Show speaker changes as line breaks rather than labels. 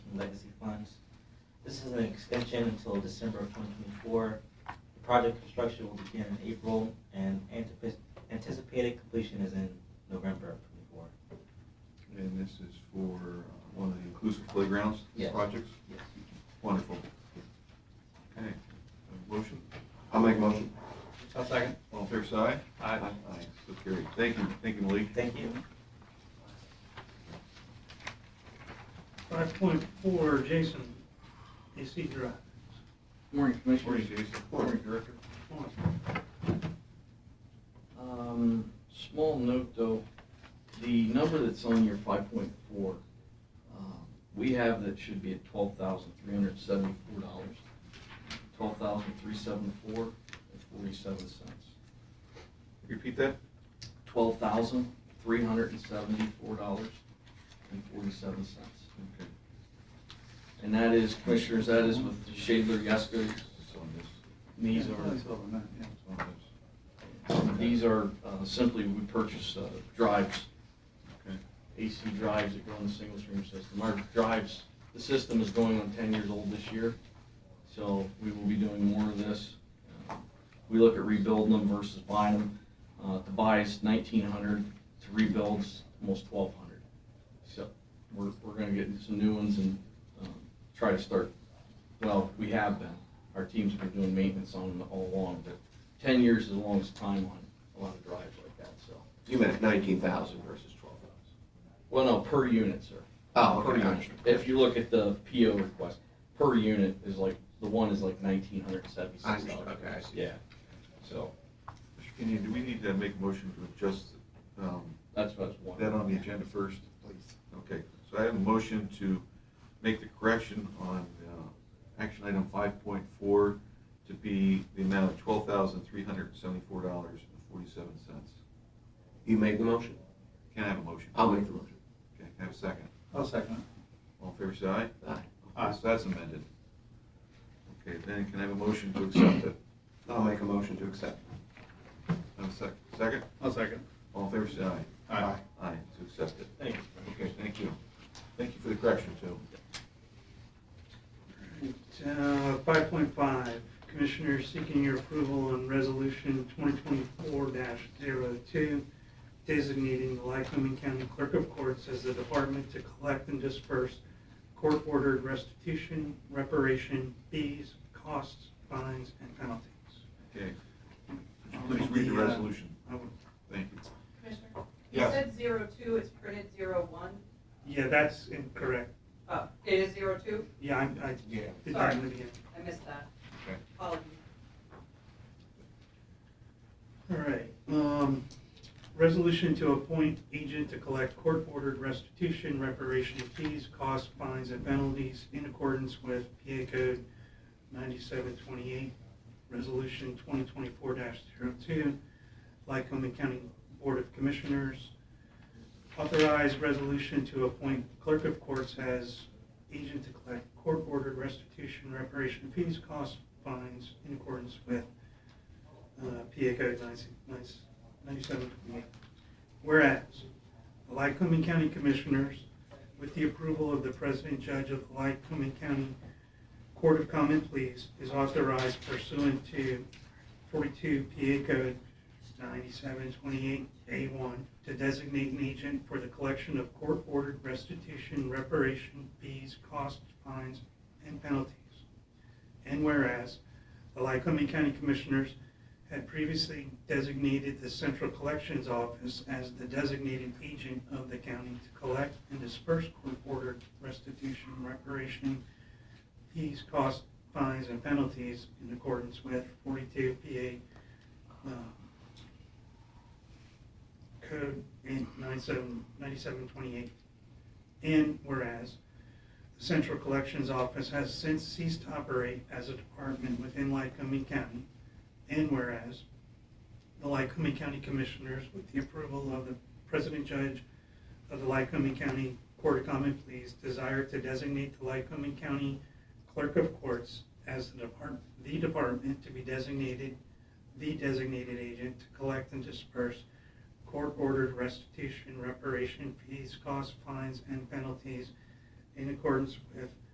This is an extension until December of 2024. The project construction will begin in April, and antip- anticipated completion is in November of '24.
And this is for uh, one of the inclusive playgrounds
Yes.
projects?
Yes.
Wonderful. Okay, a motion? I'll make a motion.
I'll second.
All fair side?
Aye.
Aye, so carried. Thank you, thank you, Malik.
Thank you.
Five point four, Jason, AC Drive.
Morning, Commissioners.
Morning, Jason. Morning, Director.
Um, Small note, though, the number that's on your 5.4, um, we have that should be at $12,374. $12,374.47.
Repeat that?
$12,374.47.
Okay,
And that is, Commissioners, that is with Shadler, Yesko.
it's on this,
These are
it's on this.
These are uh, simply, we purchase uh, drives,
Okay,
AC drives that go in the single stream system. Our drives, the system is going on 10 years old this year, so we will be doing more of this. Uh, We look at rebuilding them versus buying them. Uh, To buy is 1,900, to rebuild's almost 1,200. So we're, we're going to get some new ones and um, try to start, well, we have been. Our team's been doing maintenance on them all along, but 10 years is the longest time on a lot of drives like that, so.
You meant nineteen thousand versus twelve thousand.
Well, no, per unit, sir.
Oh,
Per
okay, I
unit.
understand.
If you look at the PO request, per unit is like, the one is like nineteen hundred and seventy-six
I
dollars.
understand, okay, I see.
Yeah, so,
Mr. Kenny, do we need to make a motion to adjust um,
that's what I was wondering.
that on the agenda first? Please. Okay, so I have a motion to make the correction on uh, action item 5.4 to be the amount of $12,374.47.
You make the motion?
Can I have a motion?
I'll make the motion.
Okay, can I have a second?
I'll second
All fair side?
Aye.
Aye.
So that's amended. Okay, then can I have a motion to accept it?
I'll make a motion to accept.
Have a sec, second?
I'll second.
All fair side?
Aye.
Aye, it's accepted.
Thank you.
Okay, thank you. Thank you for the correction, too.
Uh, five point five, Commissioners seeking your approval on resolution twenty twenty-four 2 designating the Lycoming County Clerk of Courts as the department to collect and disperse court-ordered restitution, reparation, fees, costs, fines, and penalties. Uh,
Okay, please read the resolution.
I would
Thank you.
Commissioner?
Yes.
You said zero two, it's printed zero one.
Yeah, that's incorrect.
Oh, it is zero two?
Yeah, I, I
Yeah.
did that in the beginning.
I missed that.
Okay.
Apologies.
All right, um, resolution to appoint agent to collect court-ordered restitution, reparation of fees, costs, fines, and penalties in accordance with PA Code ninety-seven twenty-eight, Resolution twenty twenty-four 2 Lycoming County Board of Commissioners. Authorize resolution to appoint clerk of courts as agent to collect court-ordered restitution, reparation of fees, costs, fines in accordance with uh, PA Code 9728. Whereas, the Lycoming County Commissioners, with the approval of the President Judge of the Lycoming County Court of Common Pleas, is authorized pursuant to 42 PA Code 9728A1 to designate an agent for the collection of court-ordered restitution, reparation, fees, costs, fines, and penalties. And whereas, the Lycoming County Commissioners had previously designated the Central Collections Office as the designated agent of the county to collect and disperse court-ordered restitution, reparation, fees, costs, fines, and penalties in accordance with 42 PA um, Code 97 9728. And whereas, the Central Collections Office has since ceased to operate as a department within Lycoming County, and whereas the Lycoming County Commissioners, with the approval of the President Judge of the Lycoming County Court of Common Pleas, desire to designate the Lycoming County Clerk of Courts as the department, the department to be designated, the designated agent to collect and disperse court-ordered restitution, reparation fees, costs, fines, and penalties in accordance with